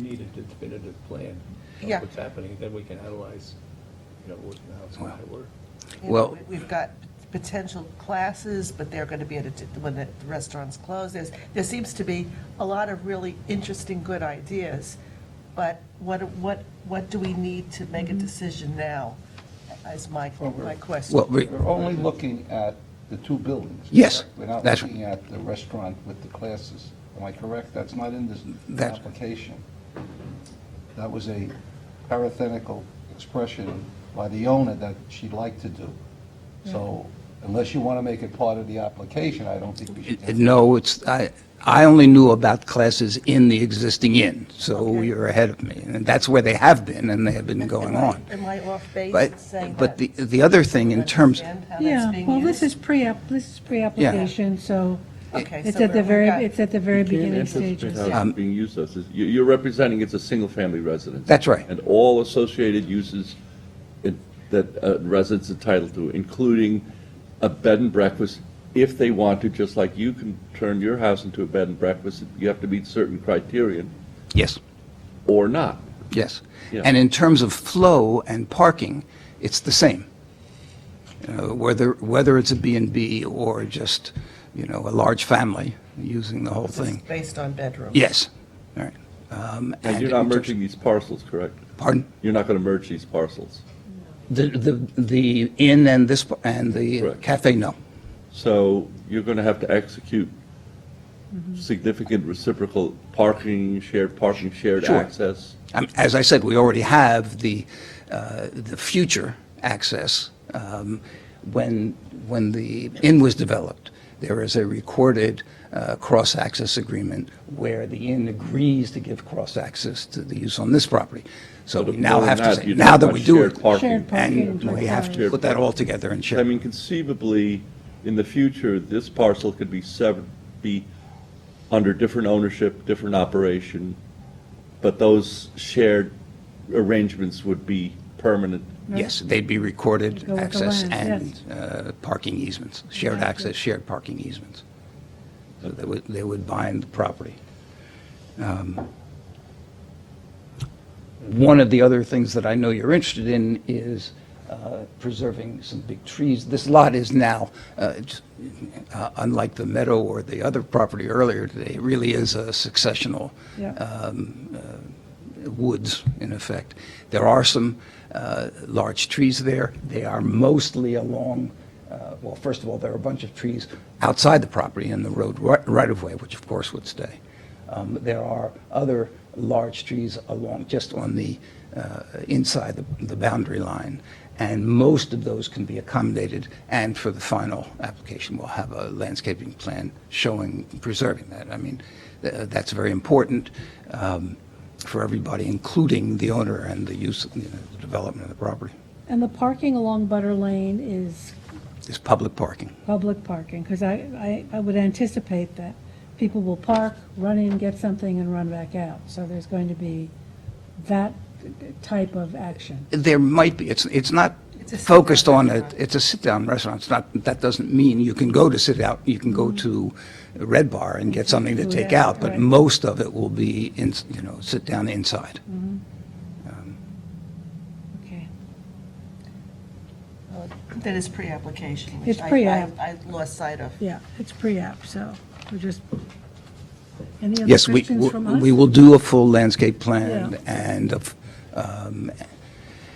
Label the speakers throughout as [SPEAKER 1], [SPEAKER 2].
[SPEAKER 1] need a definitive plan
[SPEAKER 2] Yeah.
[SPEAKER 1] of what's happening, then we can analyze, you know, what- how it's going to work.
[SPEAKER 2] You know,
[SPEAKER 3] Well-
[SPEAKER 2] we- We've got potential classes, but they're going to be at, a di- when the restaurants close, there's, there seems to be a lot of really interesting, good ideas, but what, what, what do we need to make a decision now, is my,
[SPEAKER 4] Well, we're-
[SPEAKER 2] my question.
[SPEAKER 3] Well, we-
[SPEAKER 4] We're only looking at the two buildings.
[SPEAKER 3] Yes,
[SPEAKER 4] correct? We're not
[SPEAKER 3] that's-
[SPEAKER 4] looking at the restaurant with the classes. Am I correct? That's not in this
[SPEAKER 3] That's-
[SPEAKER 4] application. That was a parenthetical expression by the owner that she'd like to do. So unless you want to make it part of the application, I don't think we should.
[SPEAKER 3] Hmm. It- No, it's, I, I only knew about classes in the existing inn, so
[SPEAKER 2] Okay.
[SPEAKER 3] you're ahead of me. And that's where they have been, and they have been going
[SPEAKER 2] Am I-
[SPEAKER 3] on.
[SPEAKER 2] Am I off base in
[SPEAKER 3] But,
[SPEAKER 2] saying that?
[SPEAKER 3] but the, the other thing in terms,
[SPEAKER 2] Understand how that's
[SPEAKER 5] Yeah,
[SPEAKER 2] being
[SPEAKER 5] well, this is
[SPEAKER 2] used?
[SPEAKER 5] pre-app, this is pre-application, so
[SPEAKER 2] Okay,
[SPEAKER 5] it's
[SPEAKER 2] so
[SPEAKER 5] at the
[SPEAKER 2] we're-
[SPEAKER 5] very,
[SPEAKER 2] okay.
[SPEAKER 5] it's at the very beginning
[SPEAKER 6] You
[SPEAKER 5] stages.
[SPEAKER 6] can't anticipate
[SPEAKER 3] Um,
[SPEAKER 6] how it's being used as, is- you- you're representing it's a single-family residence.
[SPEAKER 3] That's right.
[SPEAKER 6] And all associated uses in- that uh, residents entitled to, including a bed and breakfast, if they want to, just like you can turn your house into a bed and breakfast, you have to meet certain criterion
[SPEAKER 3] yes,
[SPEAKER 6] or not.
[SPEAKER 3] yes.
[SPEAKER 6] Yeah.
[SPEAKER 3] And in terms of flow and parking, it's the same. You know, Whether, whether it's a B and B or just, you know, a large family using the whole
[SPEAKER 2] This is
[SPEAKER 3] thing.
[SPEAKER 2] Based on bedrooms.
[SPEAKER 3] Yes, all right. Um,
[SPEAKER 6] And
[SPEAKER 3] and
[SPEAKER 6] you're not
[SPEAKER 3] in terms-
[SPEAKER 6] merging these parcels, correct?
[SPEAKER 3] Pardon?
[SPEAKER 6] You're not going to merge these parcels.
[SPEAKER 3] The, the, the inn and this, and the
[SPEAKER 6] Correct.
[SPEAKER 3] cafe, no.
[SPEAKER 6] So you're going to have to execute
[SPEAKER 5] Mm-hmm.
[SPEAKER 6] significant reciprocal parking, shared parking, shared
[SPEAKER 3] Sure.
[SPEAKER 6] access.
[SPEAKER 3] Um, As I said, we already have the, uh, the future access. Um, When, when the inn was developed, there is a recorded uh, cross-access agreement where the inn agrees to give cross-access to the use on this property. So we now
[SPEAKER 6] Other than
[SPEAKER 3] have to, say-
[SPEAKER 6] you
[SPEAKER 3] now
[SPEAKER 6] don't
[SPEAKER 3] that
[SPEAKER 6] want
[SPEAKER 3] we do
[SPEAKER 6] shared
[SPEAKER 3] it,
[SPEAKER 6] parking.
[SPEAKER 5] Shared
[SPEAKER 3] and we have to
[SPEAKER 6] Shared
[SPEAKER 3] put that all
[SPEAKER 6] parking.
[SPEAKER 3] together and
[SPEAKER 6] I
[SPEAKER 3] share.
[SPEAKER 6] mean, conceivably, in the future, this parcel could be severed, be under different ownership, different operation, but those shared arrangements would be permanent.
[SPEAKER 3] Yes, they'd be recorded
[SPEAKER 5] Go with the
[SPEAKER 3] access
[SPEAKER 5] land,
[SPEAKER 3] and uh, parking easements, shared access, shared parking easements. So they would, they would bind the property. Um, One of the other things that I know you're interested in is uh, preserving some big trees. This lot is now, uh, it's, uh, unlike the meadow or the other property earlier today, it really is a successional
[SPEAKER 5] Yeah.
[SPEAKER 3] um, uh, woods, in effect. There are some uh, large trees there. They are mostly along, uh, well, first of all, there are a bunch of trees outside the property in the road ri- right-of-way, which of course would stay. Um, There are other large trees along, just on the, uh, inside the- the boundary line, and most of those can be accommodated, and for the final application, we'll have a landscaping plan showing, preserving that. I mean, th- that's very important um, for everybody, including the owner and the use, you know, the development of the property.
[SPEAKER 5] And the parking along Butter Lane is
[SPEAKER 3] It's public parking.
[SPEAKER 5] public parking, because I, I, I would anticipate that people will park, run in, get something, and run back out. So there's going to be that type of action.
[SPEAKER 3] There might be, it's, it's not
[SPEAKER 2] It's a sit-down
[SPEAKER 3] focused on, a.
[SPEAKER 2] restaurant.
[SPEAKER 3] it's a sit-down restaurant, it's not, that doesn't mean you can go to sit out, you can go to Red Bar and get something to
[SPEAKER 5] Food
[SPEAKER 3] take
[SPEAKER 5] out,
[SPEAKER 3] out, but
[SPEAKER 5] right.
[SPEAKER 3] most of it will be, in you know, sit down inside.
[SPEAKER 5] Okay.
[SPEAKER 2] That is pre-application, which
[SPEAKER 5] It's
[SPEAKER 2] I-
[SPEAKER 5] pre-app.
[SPEAKER 2] I, I lost sight of.
[SPEAKER 5] Yeah, it's pre-app, so we're just, any other
[SPEAKER 3] Yes, we,
[SPEAKER 5] questions from us?
[SPEAKER 3] we will do a full landscape plan
[SPEAKER 5] Yeah.
[SPEAKER 3] and, a f- um,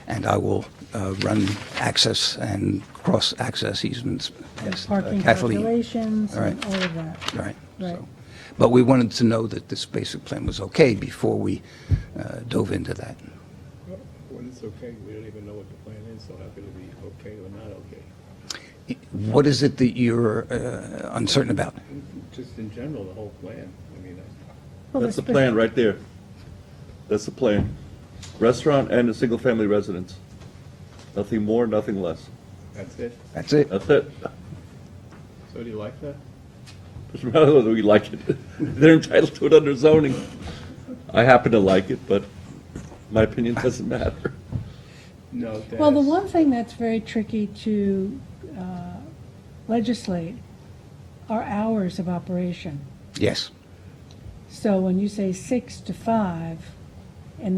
[SPEAKER 3] and I will uh, run access and cross-access easements past uh,
[SPEAKER 5] Parking
[SPEAKER 3] Kathleen.
[SPEAKER 5] calculations
[SPEAKER 3] All right.
[SPEAKER 5] and all of that.
[SPEAKER 3] Right.
[SPEAKER 5] Right.
[SPEAKER 3] so. But we wanted to know that this basic plan was okay before we uh, dove into that.
[SPEAKER 1] When it's okay, we don't even know what the plan is, so how could it be okay or not okay?
[SPEAKER 3] What is it that you're uh, uncertain about?
[SPEAKER 1] Just in general, the whole plan, I mean, I-
[SPEAKER 5] Well,
[SPEAKER 6] That's the
[SPEAKER 5] spe-
[SPEAKER 6] plan right there. That's the plan. Restaurant and a single-family residence. Nothing more, nothing less.
[SPEAKER 1] that's it.
[SPEAKER 3] That's it?
[SPEAKER 6] That's it.
[SPEAKER 1] So do you like that?
[SPEAKER 6] Doesn't matter whether we like it. They're entitled to it under zoning. I happen to like it, but my opinion doesn't matter.
[SPEAKER 1] No, Dennis.
[SPEAKER 5] Well, the one thing that's very tricky to uh, legislate are hours of operation.
[SPEAKER 3] Yes.
[SPEAKER 5] So when you say six to five,